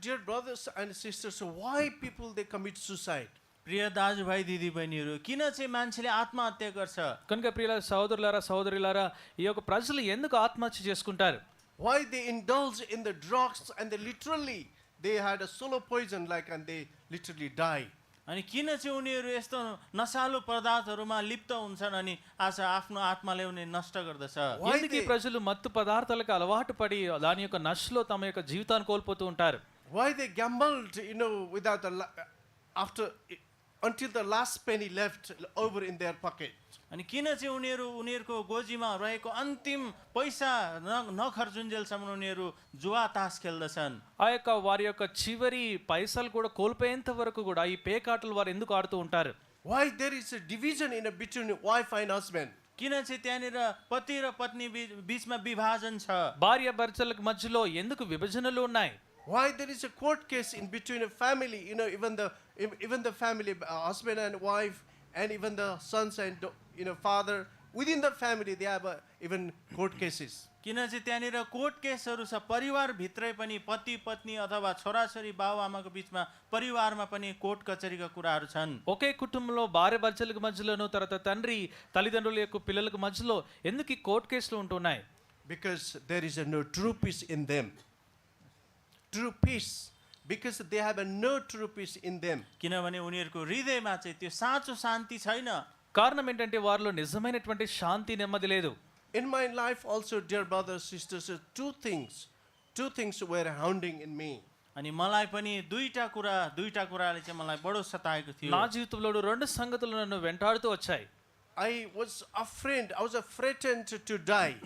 Dear brothers and sisters, why people they commit suicide? प्रिय दाजुभाइ दिदीबहिनीहरू किन चाहिँ मान्छेले आत्महत्या गर्छ కనుక ప్రియుల సోదరులారా సోదరులారా ఈ యొక్క ప్రజలు ఎందుకు ఆత్మహత్య చేసుకుంటారు Why they indulge in the drugs and they literally they had a solo poison like and they literally die. अनि किन चाहिँ उनीहरू यस्तो नसालु पदार्थहरूमा लिप्त हुन्छन् अनि आज आफ्नो आत्माले उनी नष्ट गर्दछ Why ఎందుకు ఈ they- ప్రజలు మత్తు పదార్థాలకు అలవాటు పడి దాని యొక్క నష్టలో తమ యొక్క జీవితాన్ని కోల్పోతూ ఉంటారు Why they gambled, you know, without the la- after until the last penny left over in their pocket. अनि किन चाहिँ उनीहरू उनीहरूको गोजीमा रहेको अन्तिम पैसा न नखर्जुन्जेलसम्म उनीहरू जुवा तास खेल्दछन् ఆ యొక్క వారి యొక్క చివరి పైసలు కూడా కోల్పోయేంత వరకు కూడా ఈ పేకాటలు వారు ఎందుకు ఆడుతూ ఉంటారు Why there is a division in a between wife and husband. किन चाहिँ त्यहाँनिर पति र पत्नी बीच बिचमा विभाजन छ భార్య భర్తలకు మధ్యలో ఎందుకు విభజనలు ఉన్నాయి Why there is a court case in between a family, you know, even the ev- even the family, uh, husband and wife, and even the sons and da- you know father within the family they have uh, even court cases. किन चाहिँ त्यहाँनिर court केसहरू छ परिवारभित्रै पनि पति पत्नी अथवा छोराछोरी बाबुआमाको बिचमा परिवारमा पनि कोर्ट कचेरीका कुराहरू छन् ఒకే కుటుంబంలో భార్య భర్తలకు మధ్యలోను తర్వాత తండ్రి తల్లిదండ్రుల యొక్క పిల్లలకు మధ్యలో ఎందుకు ఈ కోర్టు కేసులు ఉంటున్నాయి because there is a no true peace in them. True peace, because they have a no true peace in them. किनभने उनीहरूको हृदयमा चाहिँ त्यो साँचो शान्ति छैन కారణం ఏంటంటే వారిలో నిజమైనటువంటి శాంతి నెమ్మది లేదు In my life, also, dear brothers, sisters, uh, two things, two things were hounding in me. अनि मलाई पनि दुईटा कुरा दुईटा कुराले चाहिँ मलाई बडो सताएको थियो నా జీవితంలో రెండు సంగతులు నన్ను వెంటాడుతూ వచ్చాయి I was afraid. I was uh, threatened to die.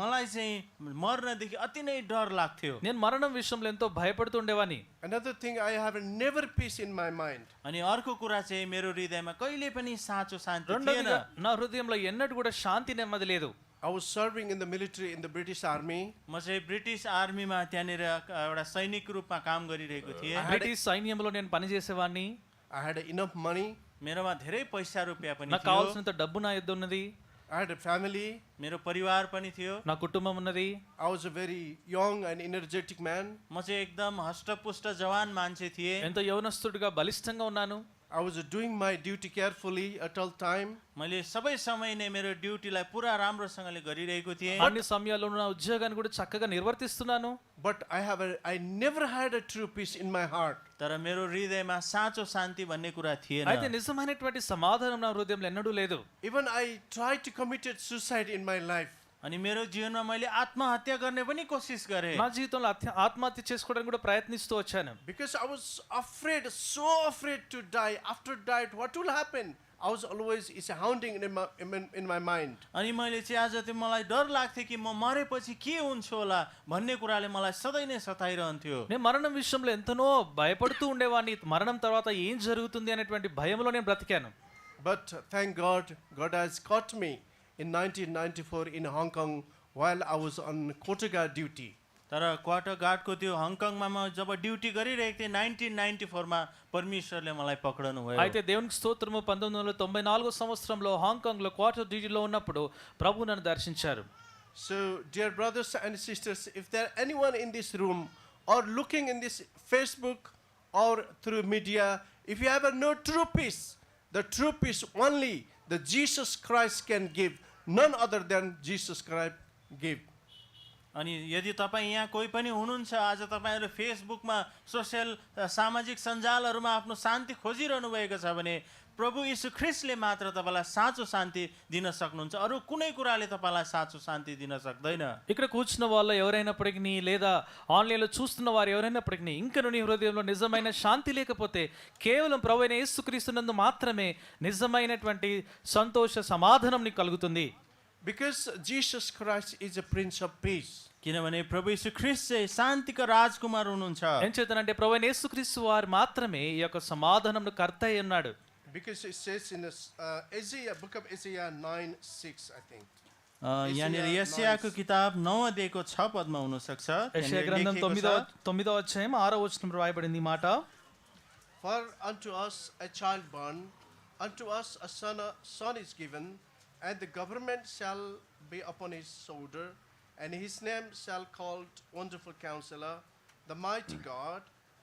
मलाई चाहिँ मर्नदेखि अति नै डर लाग्थ्यो నేను మరణం విషయంలో ఎంతో భయపడుతూ ఉండేవాని Another thing, I have a never peace in my mind. अनि अर्को कुरा चाहिँ मेरो हृदयमा कहिले पनि साँचो शान्ति थिएन రెండోదిగా నా హృదయంలో ఎన్నటి కూడా శాంతి నెమ్మది లేదు I was serving in the military in the British Army. म चाहिँ ब्रिटिस आर्मीमा त्यहाँनिर एउटा सैनिक रूपमा काम गरिरहेको थिएँ బ్రిటిష్ సైన్యంలో నేను పనిచేసేవాడిని I had enough money. मेरोमा धेरै पैसा रुपियाँ पनि నాకు थियो కావాల్సినంత డబ్బు నా యొద్ద ఉన్నది I had a family. मेरो परिवार पनि थियो నా కుటుంబం ఉన్నది I was a very young and energetic man. म चाहिँ एकदम हष्टपुष्ट जवान मान्छे थिएँ ఎంతో యవనస్తుడిగా బలిష్టంగా ఉన్నాను I was doing my duty carefully at all time. मैले सबै समय नै मेरो ड्युटीलाई पुरा राम्रोसँगले गरिरहेको थिएँ అన్ని సమయాల్లో నా ఉద్యోగాన్ని కూడా చక్కగా నిర్వర్తిస్తున్నాను But I have a, I never had a true peace in my heart. तर मेरो हृदयमा साँचो शान्ति भन्ने कुरा అయితే थिएन నిజమైనటువంటి సమాధానం నా హృదయంలో ఎన్నడూ లేదు Even I tried to commit suicide in my life. अनि मेरो जीवनमा मैले आत्महत्या गर्ने पनि कोसिस गरेँ నా జీవితంలో అత్య- ఆత్మహత్య చేసుకోవడానికి కూడా ప్రయత్నిస్తూ వచ్చాను Because I was afraid, so afraid to die. After died, what will happen? I was always is hounding in my, in, in my mind. अनि मैले चाहिँ आज त्यो मलाई डर लाग्थ्यो कि म मरेपछि के हुन्छ होला भन्ने कुराले मलाई सधैँ नै सताइरहन्थ्यो నేను మరణం విషయంలో ఎంతనో భయపడుతూ ఉండేవాడిని మరణం తర్వాత ఏం జరుగుతుంది అనేటువంటి భయంలో నేను బ్రతికాను But thank God, God has caught me in 1994 in Hong Kong while I was on Kotaga duty. तर क्वार्टर गार्डको त्यो हङकङमा म जब ड्युटी गरिरहेको थिएँ नाइन्टिन नाइन्टी फोरमा परमेश्वरले मलाई पक्राउनु भयो అయితే దేవునికి స్తోత్రము పంతొమ్మిది వందల తొంభై నాలుగో సంవత్సరంలో హాంకాంగ్లో క్వార్టర్ డ్యూటీలో ఉన్నప్పుడు ప్రభు నన్ను దర్శించారు So, dear brothers and sisters, if there anyone in this room or looking in this Facebook or through media, if you have a no true peace, the true peace only the Jesus Christ can give, none other than Jesus Christ give. अनि यदि तपाईँ यहाँ कोही पनि हुनुहुन्छ आज तपाईँहरू फेसबुकमा सोसियल अ, सामाजिक सञ्जालहरूमा आफ्नो शान्ति खोजिरहनु भएको छ भने प्रभु यीशु ख्रिस्टले मात्र तपाईँलाई साँचो शान्ति दिन सक्नुहुन्छ अरू कुनै कुराले तपाईँलाई साँचो शान्ति दिन सक्दैन ఇక్కడ కూర్చున్న వాళ్ళు ఎవరైనప్పటికీ లేదా ఆన్లైన్లో చూస్తున్న వారు ఎవరైనప్పటికీ ఇంకను నీ హృదయంలో నిజమైన శాంతి లేకపోతే కేవలం ప్రభు అయిన యేసుక్రీస్తునందు మాత్రమే నిజమైనటువంటి సంతోష సమాధానం నీకు కలుగుతుంది Because Jesus Christ is a Prince of Peace. किनभने प्रभु यीशु ख्रिस्ट चाहिँ शान्तिको राजकुमार हुनुहुन्छ ఏం చేతనంటే ప్రభు అయిన యేసుక్రీస్తు వారు మాత్రమే ఈ యొక్క సమాధానంను కర్త అయి ఉన్నాడు Because it says in this, uh, Isaiah, book of Isaiah 9 6, I think. अ, यहाँनिर यसियाको किताब नौ अध्यायको छ पदमा हुनसक्छ యెషయా त्यहाँनिर గ్రంథం लेखिएको తొమ్మిదో छ, తొమ్మిదో అధ్యాయం ఆరో వచనం రాయబడింది ఈ మాట For unto us a child born, unto us a son, a son is given, and the government shall be upon his shoulder, and his name shall called Wonderful Counselor, the Mighty God,